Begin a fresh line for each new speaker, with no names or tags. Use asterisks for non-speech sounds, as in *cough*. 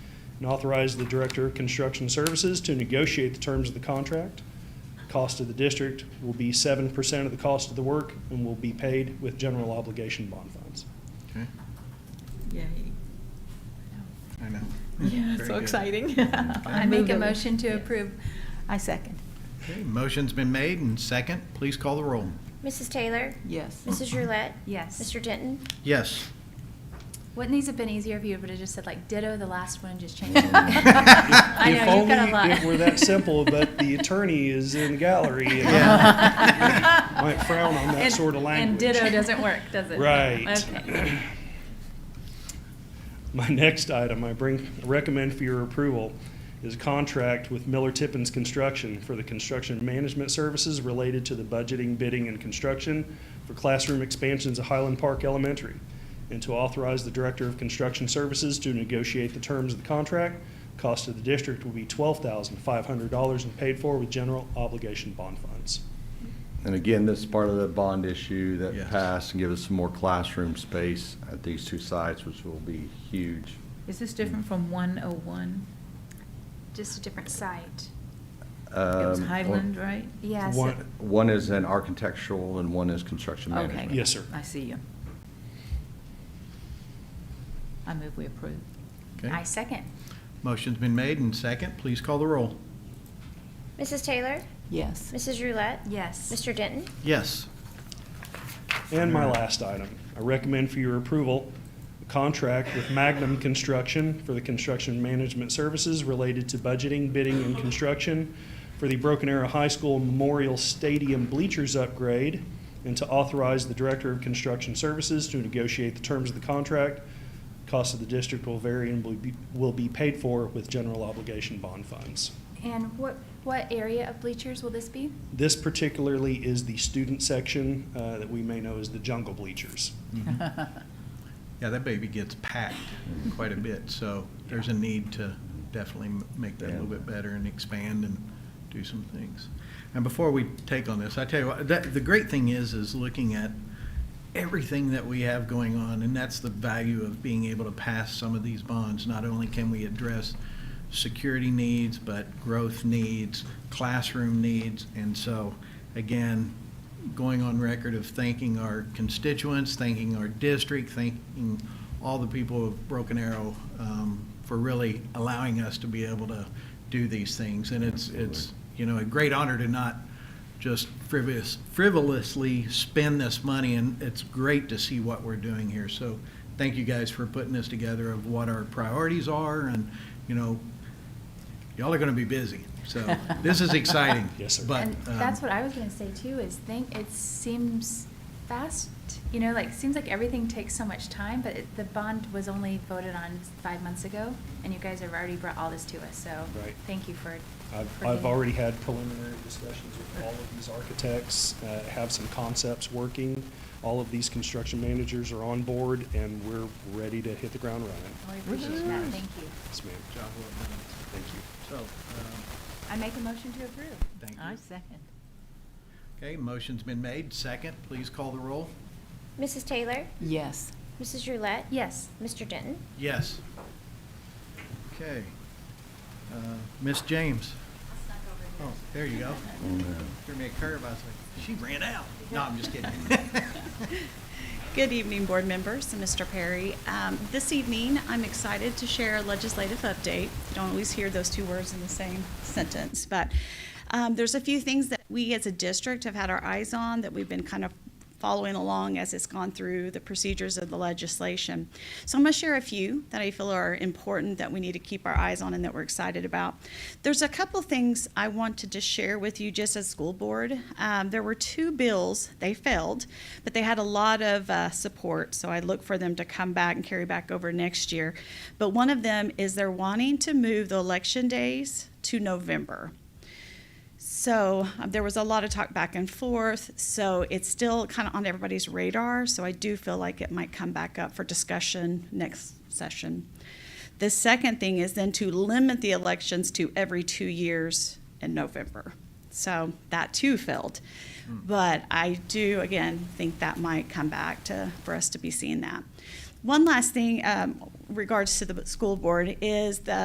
and authorize the Director of Construction Services to negotiate the terms of the contract. Cost of the district will be seven percent of the cost of the work and will be paid with general obligation bond funds.
Okay,
Yay.
I know.
Yeah,
Very
so
good.
exciting. *laughs*
I make a motion to approve. I second.
Okay, motion's been made and second, please call the roll.
Mrs. Taylor?
Yes.
Mrs. Roulette?
Yes.
Mr. Denton?
Yes.
Wouldn't these have been easier if you would have just said like ditto the last one,
*laughs*
just change it?
I
I know, you've got a lot.
If only it were that simple, but the attorney is in the gallery
*laughs*
and *laughs*
Yeah.
might frown on that
And-
sort of language.
And ditto doesn't work, does it?
Right. *clears throat*
Okay.
My next item I bring, recommend for your approval is a contract with Miller Tippins Construction for the construction management services related to the budgeting, bidding, and construction for classroom expansions at Highland Park Elementary, and to authorize the Director of Construction Services to negotiate the terms of the contract. Cost of the district will be twelve thousand five hundred dollars and paid for with general obligation bond funds.
And again, this is part of the bond issue
Yes.
that passed and give us some more classroom space at these two sites, which will be huge.
Is this different from 101?
Just a different site.
It was
Um,
Highland, right?
Yes.
One-
One is an architectural and one is construction
Okay.
management.
Yes, sir.
I see you. I move we approve.
Okay,
I second.
motion's been made and second, please call the roll.
Mrs. Taylor?
Yes.
Mrs. Roulette?
Yes.
Mr. Denton?
Yes.
And my last item, I recommend for your approval, a contract with Magnum Construction for the construction management services related to budgeting, bidding, and construction for the Broken Arrow High School Memorial Stadium bleachers upgrade, and to authorize the Director of Construction Services to negotiate the terms of the contract. Cost of the district will vary and will be, will be paid for with general obligation bond funds.
And what, what area of bleachers will this be?
This particularly is the student section, uh, that we may know as the jungle bleachers.
Yeah, that baby gets packed quite a bit, so there's a need to definitely m- make that a little bit better and expand and do some things. And before we take on this, I tell you what, that, the great thing is, is looking at everything that we have going on, and that's the value of being able to pass some of these bonds. Not only can we address security needs, but growth needs, classroom needs, and so, again, going on record of thanking our constituents, thanking our district, thanking all the people of Broken Arrow um, for really allowing us to be able to do these things. And it's, it's, you know, a great honor to not just frivolous, frivolously spend this money, and it's great to see what we're doing here. So thank you guys for putting this together of what our priorities are, and, you know, y'all are going to be busy. So this is exciting.
Yes, sir.
But,
And
um,
that's what I was gonna say too, is think, it seems fast, you know, like, seems like everything takes so much time, but it- the bond was only voted on five months ago, and you guys have already brought all this to us, so.
Right.
Thank you for.
I've,
for
I've
getting-
already had preliminary discussions with all of these architects, uh, have some concepts working. All of these construction managers are on board, and we're ready to hit the ground running.
Well, We appreciate that, thank you.
Yes, ma'am.
Job well done.
Thank you.
So, um,
I make a motion to approve.
thank
I
you.
second.
Okay, motion's been made. Second, please call the roll.
Mrs. Taylor?
Yes.
Mrs. Roulette?
Yes.
Mr. Denton?
Yes. Okay. Uh, Miss James? Oh, there you go.
uh,
Threw me a curve. I was like, she ran out. No, I'm just kidding.
Good evening, board members and Mr. Perry. Um, This evening, I'm excited to share a legislative update. You don't always hear those two words in the same sentence, but um, there's a few things that we as a district have had our eyes on that we've been kind of following along as it's gone through the procedures of the legislation. So I'm going to share a few that I feel are important that we need to keep our eyes on and that we're excited about. There's a couple things I wanted to share with you just as school board. Um, there were two bills, they failed, but they had a lot of uh, support, so I look for them to come back and carry back over next year. But one of them is they're wanting to move the election days to November. So um, there was a lot of talk back and forth. So it's still kind of on everybody's radar. So I do feel like it might come back up for discussion next session. The second thing is then to limit the elections to every two years in November. So that too failed. But I do, again, think that might come back to, for us to be seeing that. One last thing um, regards to the school board is the